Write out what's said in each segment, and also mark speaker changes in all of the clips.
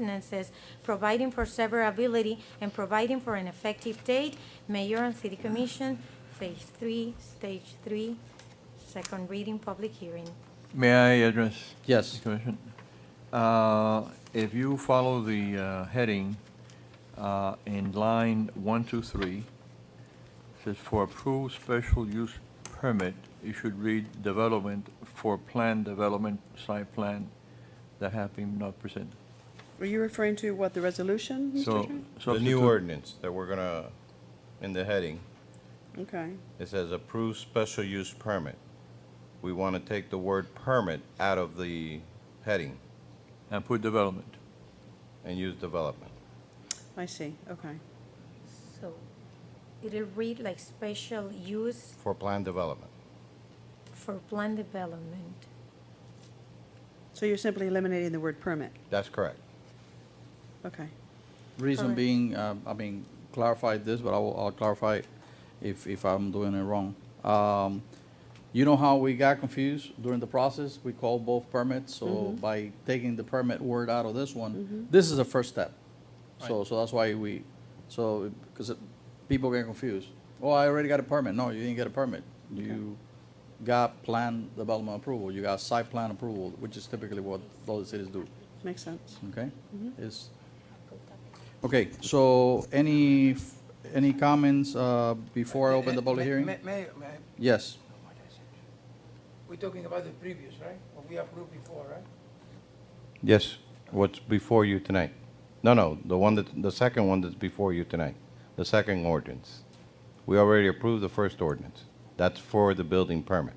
Speaker 1: ordinances, providing for severability and providing for an effective date, mayor and city commission, phase three, stage three, second reading, public hearing.
Speaker 2: May I address?
Speaker 3: Yes.
Speaker 2: the Commission? Uh, If you follow the uh, heading uh, in line one, two, three, says for approved special use permit, you should read development for planned development, site plan that have been not presented.
Speaker 4: Were you referring to what, the resolution? Mr.
Speaker 2: So.
Speaker 4: Chairman?
Speaker 5: The new
Speaker 2: substitute-
Speaker 5: ordinance that we're gonna, in the heading,
Speaker 4: Okay,
Speaker 5: it says approved special use permit. We wanna take the word permit out of the heading
Speaker 2: And put development.
Speaker 5: and use development.
Speaker 4: I see, okay.
Speaker 1: So it'll read like special use
Speaker 5: For planned development,
Speaker 1: for planned development.
Speaker 4: So you're simply eliminating the word permit,
Speaker 5: that's correct.
Speaker 4: okay.
Speaker 3: Reason
Speaker 1: Correct.
Speaker 3: being, uh, I mean, clarify this, but I will, I'll clarify it if, if I'm doing it wrong. Um, you know how we got confused during the process? We called both permits, so by taking the permit word out of this one, this is the first step. So, so that's why we, so, because people get confused. Oh, I already got a permit. No, you didn't get a permit. You got plan development approval, you got site plan approval, which is typically what those cities do.
Speaker 4: Makes sense.
Speaker 3: Okay? Is, okay, so any, f- any comments uh, before I open the public
Speaker 6: Ma-
Speaker 3: hearing?
Speaker 6: ma- Mayor, may I-
Speaker 3: Yes,
Speaker 6: we're talking about the previous, right? What we approved before, right?
Speaker 5: Yes, what's before you tonight? No, no, the one that, the second one that's before you tonight, the second ordinance. We already approved the first ordinance. That's for the building permit.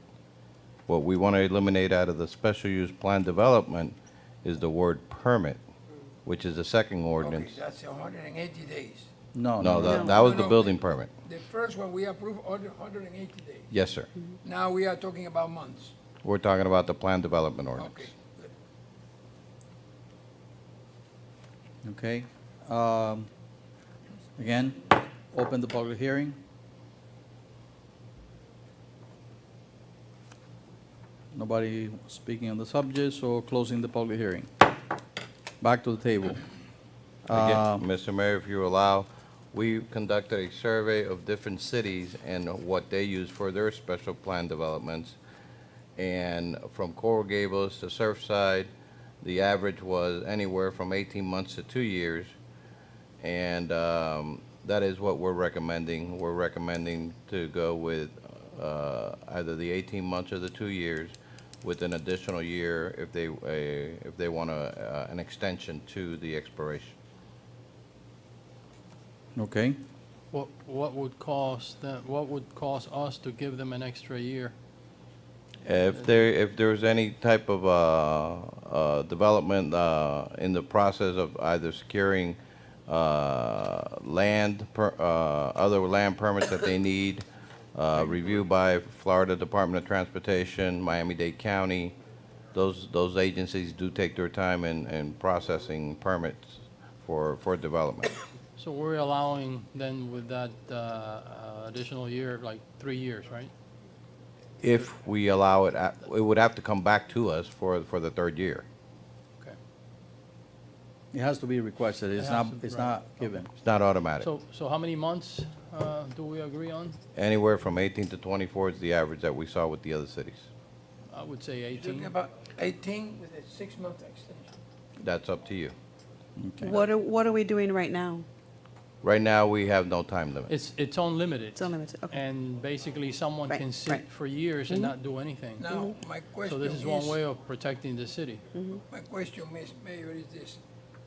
Speaker 5: What we want to eliminate out of the special use plan development is the word permit, which is the second ordinance.
Speaker 6: Okay, that's hundred and eighty days.
Speaker 3: no,
Speaker 5: No,
Speaker 3: no,
Speaker 5: that,
Speaker 4: No.
Speaker 5: that was
Speaker 6: No,
Speaker 5: the
Speaker 6: no.
Speaker 5: building permit.
Speaker 6: The first one, we approved hundred and eighty days.
Speaker 5: Yes, sir.
Speaker 6: Now we are talking about months.
Speaker 5: We're talking about the plan development ordinance.
Speaker 6: Okay, good.
Speaker 3: okay. Um, Again, open the public hearing. Nobody speaking on the subject, so closing the public hearing. Back to the table.
Speaker 5: Again, Mr. Mayor, if you allow, we conducted a survey of different cities and what they use for their special plan developments. And from Coral Gables to Surfside, the average was anywhere from 18 months to two years. And um, that is what we're recommending. We're recommending to go with uh, either the 18 months or the two years with an additional year if they, uh, if they want a, uh, an extension to the expiration.
Speaker 3: Okay,
Speaker 7: What, what would cause them, what would cause us to give them an extra year?
Speaker 5: If there, if there's any type of uh, uh, development uh, in the process of either securing uh, land, per- uh, other land permits that they need, uh, review by Florida Department of Transportation, Miami-Dade County, those, those agencies do take their time in, in processing permits for, for development.
Speaker 7: So we're allowing then with that uh, uh, additional year, like three years, right?
Speaker 5: If we allow it, at- it would have to come back to us for, for the third year.
Speaker 7: Okay.
Speaker 3: it has to be requested, it's
Speaker 7: It
Speaker 3: not,
Speaker 7: has to-
Speaker 3: it's
Speaker 7: right,
Speaker 3: not given.
Speaker 5: It's not automatic.
Speaker 7: So, so how many months uh, do we agree on?
Speaker 5: Anywhere from 18 to 24 is the average that we saw with the other cities.
Speaker 7: I would say
Speaker 6: We're talking
Speaker 7: 18.
Speaker 6: about eighteen with a six-month extension.
Speaker 5: That's up to you.
Speaker 4: What are, what are we doing right now?
Speaker 5: Right now, we have no time limit.
Speaker 7: It's, it's unlimited.
Speaker 4: It's unlimited, okay.
Speaker 7: And basically, someone
Speaker 4: Right, Mm-hmm.
Speaker 7: can
Speaker 4: right.
Speaker 7: sit for years and not do anything.
Speaker 6: Now, my
Speaker 7: Mm-hmm. So
Speaker 6: question
Speaker 7: this is one way
Speaker 6: is,
Speaker 7: of protecting the city.
Speaker 6: my question, Miss Mayor, is this.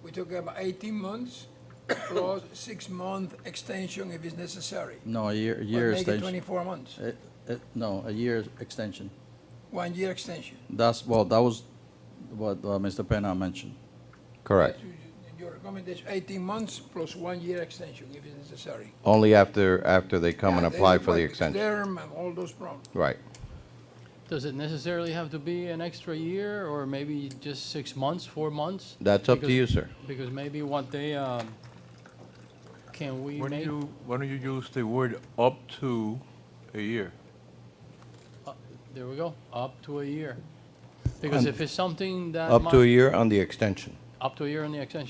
Speaker 6: We're talking about eighteen months plus six-month extension if it's necessary.
Speaker 3: No, a year, a
Speaker 6: But
Speaker 3: year
Speaker 6: Make it
Speaker 3: extension.
Speaker 6: twenty-four months,
Speaker 3: Eh, eh, No, a year extension.
Speaker 6: one-year extension.
Speaker 3: That's, well, that was what uh, Mr. Penna mentioned.
Speaker 5: Correct.
Speaker 6: You- you- Your recommendation, eighteen months plus one-year extension if it's necessary.
Speaker 5: Only after, after they come and
Speaker 6: Yeah, they
Speaker 5: apply
Speaker 6: look
Speaker 5: for the
Speaker 6: like
Speaker 5: extension.
Speaker 6: Derm and all those problems.
Speaker 5: Right.
Speaker 7: Does it necessarily have to be an extra year or maybe just six months, four months?
Speaker 5: That's up to
Speaker 7: Because-
Speaker 5: you, sir.
Speaker 7: Because maybe what they, um, can we
Speaker 2: Why don't
Speaker 7: make,
Speaker 2: you, why don't you use the word up to a year?
Speaker 7: there we go, up to a year. Because if it's something that.
Speaker 5: Up
Speaker 7: might-
Speaker 5: to a year on the extension.
Speaker 7: Up to a year on the extension.